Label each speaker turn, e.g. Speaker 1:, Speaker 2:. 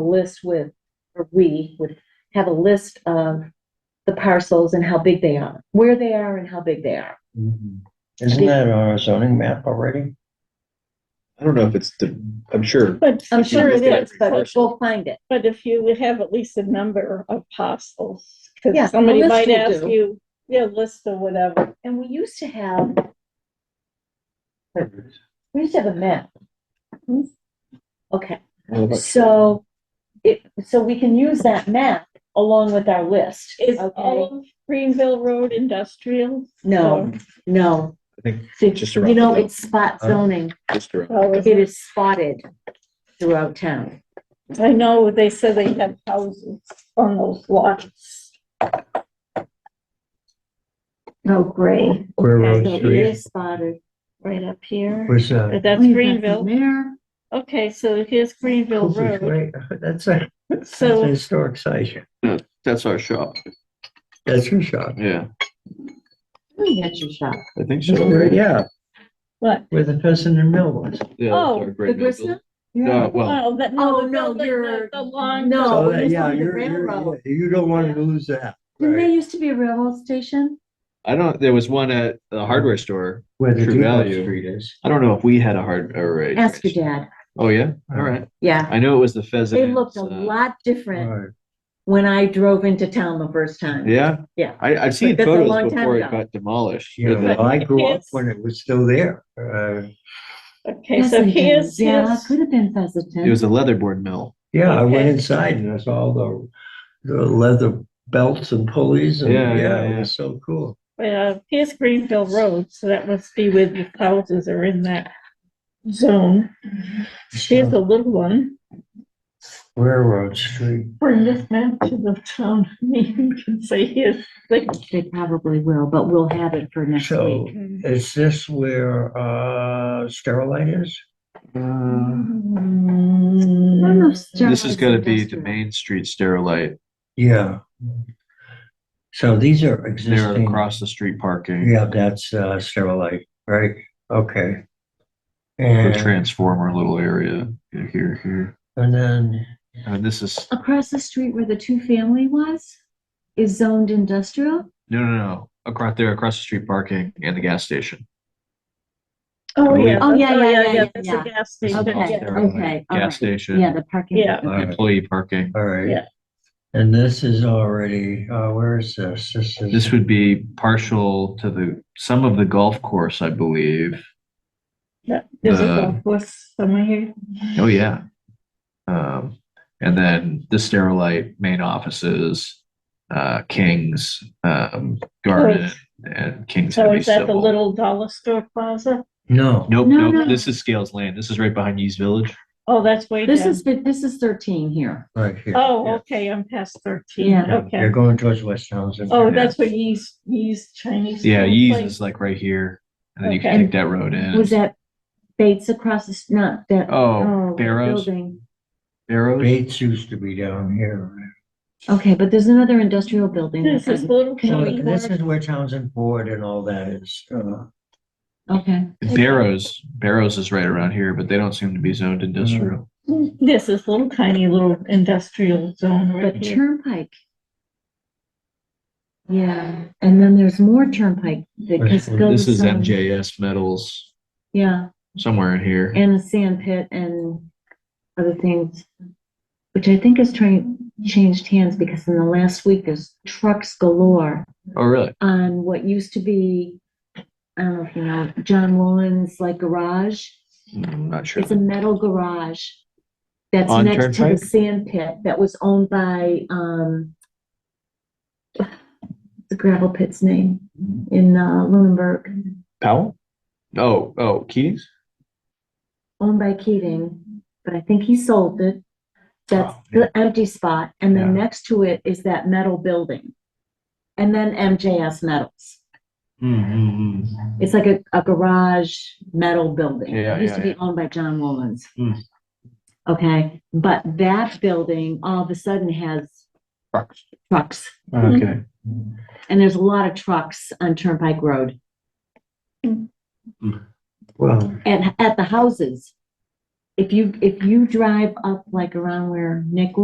Speaker 1: a list with, or we would have a list of the parcels and how big they are, where they are and how big they are.
Speaker 2: Mhm. Isn't that on our zoning map already?
Speaker 3: I don't know if it's, the- I'm sure.
Speaker 4: But
Speaker 1: I'm sure it
Speaker 3: Yeah.
Speaker 1: is, but we'll find it.
Speaker 4: But if you would have at least a number of parcels,
Speaker 1: Yeah, a
Speaker 4: because somebody
Speaker 1: list
Speaker 4: might
Speaker 1: will
Speaker 4: ask
Speaker 1: do.
Speaker 4: you, yeah, list or whatever.
Speaker 1: And we used to have, we used to have a map. Okay. So it, so we can use that map along with our list.
Speaker 4: Is
Speaker 1: okay?
Speaker 4: all of Greenville Road industrial?
Speaker 1: No, no.
Speaker 3: I think
Speaker 1: So,
Speaker 3: just
Speaker 1: You
Speaker 3: around
Speaker 1: know,
Speaker 3: the-
Speaker 1: it's spot
Speaker 3: Huh?
Speaker 1: zoning.
Speaker 3: Just around.
Speaker 4: Or-
Speaker 1: It is spotted throughout town.
Speaker 4: I know they said they have houses on those lots.
Speaker 1: Oh, great.
Speaker 2: Where
Speaker 1: It
Speaker 2: Road
Speaker 3: Oh,
Speaker 2: Street,
Speaker 1: is spotted right up here.
Speaker 2: where's uh,
Speaker 4: But
Speaker 2: that?
Speaker 4: that's
Speaker 1: Way back in
Speaker 4: Greenville.
Speaker 1: There.
Speaker 4: Okay, so here's Greenville
Speaker 2: Cooper's
Speaker 4: Road.
Speaker 2: Way. That's a, that's a
Speaker 4: So-
Speaker 2: historic site.
Speaker 3: That's our shop,
Speaker 2: That's your shop,
Speaker 3: yeah,
Speaker 1: Oh, That's your shop.
Speaker 3: I think
Speaker 2: so.
Speaker 3: Yeah.
Speaker 4: What?
Speaker 2: where the Pheasant and Mill was.
Speaker 3: yeah, that's
Speaker 4: Oh,
Speaker 3: our
Speaker 1: The
Speaker 3: great mill
Speaker 1: Grisna?
Speaker 3: building. No, well,
Speaker 4: Oh, that,
Speaker 1: Oh,
Speaker 4: no,
Speaker 1: no,
Speaker 4: no,
Speaker 1: you're-
Speaker 4: the, the long.
Speaker 1: no. Oh,
Speaker 2: So
Speaker 1: it
Speaker 2: that,
Speaker 1: was
Speaker 2: yeah,
Speaker 1: on the
Speaker 2: you're, you're,
Speaker 1: railroad.
Speaker 2: you don't want to lose that.
Speaker 1: Didn't
Speaker 2: Right.
Speaker 1: there used to be a railroad station?
Speaker 3: I don't, there was one at the hardware store,
Speaker 2: Where the
Speaker 3: True
Speaker 2: Depot
Speaker 3: Value.
Speaker 2: Street is.
Speaker 3: I don't know if we had a hard, or a.
Speaker 1: Ask your dad.
Speaker 3: Oh, yeah, all right,
Speaker 1: Yeah,
Speaker 3: I know it was uh, the pheasant.
Speaker 1: they looked a lot different
Speaker 2: Right.
Speaker 1: when I drove into town the first time.
Speaker 3: Yeah?
Speaker 1: Yeah.
Speaker 3: I, I've seen
Speaker 1: That's a long
Speaker 3: photos
Speaker 1: time
Speaker 3: before it
Speaker 1: ago.
Speaker 3: got demolished.
Speaker 2: You
Speaker 3: but
Speaker 2: know, I grew up
Speaker 4: Yes.
Speaker 2: when it was still there. Uh,
Speaker 4: Okay, so
Speaker 1: Pheasant
Speaker 4: here's,
Speaker 1: Hills, Yeah,
Speaker 4: here's,
Speaker 1: could have been
Speaker 3: It was
Speaker 1: Pheasanton.
Speaker 3: a leatherboard mill,
Speaker 2: yeah, I went
Speaker 4: Okay.
Speaker 2: inside and I saw all the, the leather belts and pulleys and,
Speaker 3: Yeah,
Speaker 2: yeah,
Speaker 3: yeah,
Speaker 2: it was so cool.
Speaker 4: uh, here's Greenville Road, so that must be where the houses are in that zone. Here's a little one.
Speaker 2: Railroad Street.
Speaker 4: Bring this map to the town meeting and say, here's the,
Speaker 1: They probably will, but we'll have it for next
Speaker 2: So
Speaker 1: week.
Speaker 2: is this where uh Starlight is?
Speaker 1: Uh, None of
Speaker 4: Mm,
Speaker 3: this is
Speaker 1: Starlight's
Speaker 3: gonna be the
Speaker 1: industrial.
Speaker 3: Main Street Sterilite,
Speaker 2: Yeah. So these are
Speaker 3: they're
Speaker 2: existing.
Speaker 3: across the street parking,
Speaker 2: Yeah, that's uh Starlight, right? Okay.
Speaker 3: the
Speaker 2: And
Speaker 3: transformer little area, here, here, here.
Speaker 2: and then,
Speaker 3: And this is,
Speaker 1: Across the street where the two-family was is zoned industrial?
Speaker 3: no, no, no, across there, across the street parking and the gas station.
Speaker 4: Oh, yeah.
Speaker 1: Oh, yeah,
Speaker 4: that's-
Speaker 1: yeah, yeah, yeah,
Speaker 4: That's
Speaker 1: yeah.
Speaker 4: a gas
Speaker 3: This is
Speaker 4: station.
Speaker 1: Okay,
Speaker 3: all
Speaker 4: yeah.
Speaker 3: Sterilite.
Speaker 1: okay, all right.
Speaker 3: Gas station. uh,
Speaker 1: Yeah, the parking.
Speaker 4: Yeah.
Speaker 2: all right,
Speaker 3: employee parking.
Speaker 2: all right.
Speaker 4: Yeah.
Speaker 2: And this is already, uh where is this? This is.
Speaker 3: This would be partial to the, some of the golf course, I believe.
Speaker 4: Yeah, There's a
Speaker 3: Uh,
Speaker 4: golf course somewhere here.
Speaker 3: Oh, yeah. Um, and then the Sterilite main offices, uh, King's, um, Garden and King's
Speaker 4: So
Speaker 3: Heavy
Speaker 4: is that the
Speaker 3: Civil.
Speaker 4: little dollar store plaza?
Speaker 2: No,
Speaker 3: Nope,
Speaker 1: No, no.
Speaker 3: nope, this is Scales Lane. This is right behind Yee's Village.
Speaker 4: Oh, that's way
Speaker 1: This
Speaker 4: down.
Speaker 1: is, this is thirteen here.
Speaker 2: right here.
Speaker 4: Oh,
Speaker 2: Yeah.
Speaker 4: okay, I'm past thirteen,
Speaker 1: Yeah.
Speaker 2: Yeah, You're
Speaker 4: okay.
Speaker 2: going towards West Townsend.
Speaker 4: Oh,
Speaker 3: Yeah.
Speaker 4: that's where Yee's, Yee's Chinese.
Speaker 3: Yeah,
Speaker 4: food
Speaker 3: Yee's
Speaker 4: place-
Speaker 3: is like right here. And then you can
Speaker 4: Okay.
Speaker 3: take that road in.
Speaker 1: Was that Bates across the, s- not that,
Speaker 3: Oh,
Speaker 1: oh,
Speaker 3: Barrows,
Speaker 1: building?
Speaker 3: Barrows.
Speaker 2: Bates used to be down here.
Speaker 1: Okay, but there's another industrial building.
Speaker 4: This
Speaker 1: that
Speaker 4: is
Speaker 1: I'm-
Speaker 4: little
Speaker 2: So
Speaker 4: County
Speaker 2: This
Speaker 4: Board.
Speaker 2: is where Townsend Ford and all that is. uh,
Speaker 1: Okay,
Speaker 3: Barrows, Barrows is right around here, but they don't seem to be zoned industrial.
Speaker 4: This is little tiny little industrial zone right
Speaker 1: but
Speaker 4: here.
Speaker 1: Turnpike. Yeah, and then there's more Turnpike that
Speaker 2: This
Speaker 1: gets
Speaker 2: is-
Speaker 1: built.
Speaker 3: This is
Speaker 1: some-
Speaker 3: MJS Metals,
Speaker 1: Yeah,
Speaker 3: somewhere in here.
Speaker 1: and the sand pit and other things, which I think is trying, changed hands because in the last week, there's trucks galore.
Speaker 3: Oh, really?
Speaker 1: on what used to be, I don't know if you know, John Woolen's like garage.
Speaker 3: I'm Mm, not sure.
Speaker 1: It's a metal garage that's
Speaker 3: On
Speaker 1: next to the
Speaker 3: Turnpike?
Speaker 1: sand pit that was owned by, um, the gravel pit's name in, uh, Lunenburg,
Speaker 3: Powell? Oh, oh, Keating's?
Speaker 1: owned by Keating, but I think he sold it. That's the empty spot, and then
Speaker 3: Oh, Yeah.
Speaker 1: next to it is that metal building. And then MJS Metals.
Speaker 3: Mm-hmm.
Speaker 1: It's like a, a garage metal building.
Speaker 3: Yeah,
Speaker 1: It used
Speaker 3: yeah,
Speaker 1: to be
Speaker 3: yeah.
Speaker 1: owned by John Woolens.
Speaker 3: Hmm.
Speaker 1: Okay, but that building all of a sudden has
Speaker 3: Trucks.
Speaker 1: trucks,
Speaker 3: Okay.
Speaker 1: and there's a lot of trucks on Turnpike Road
Speaker 2: Well,
Speaker 1: and at the houses. if you, if you drive up like around where Nick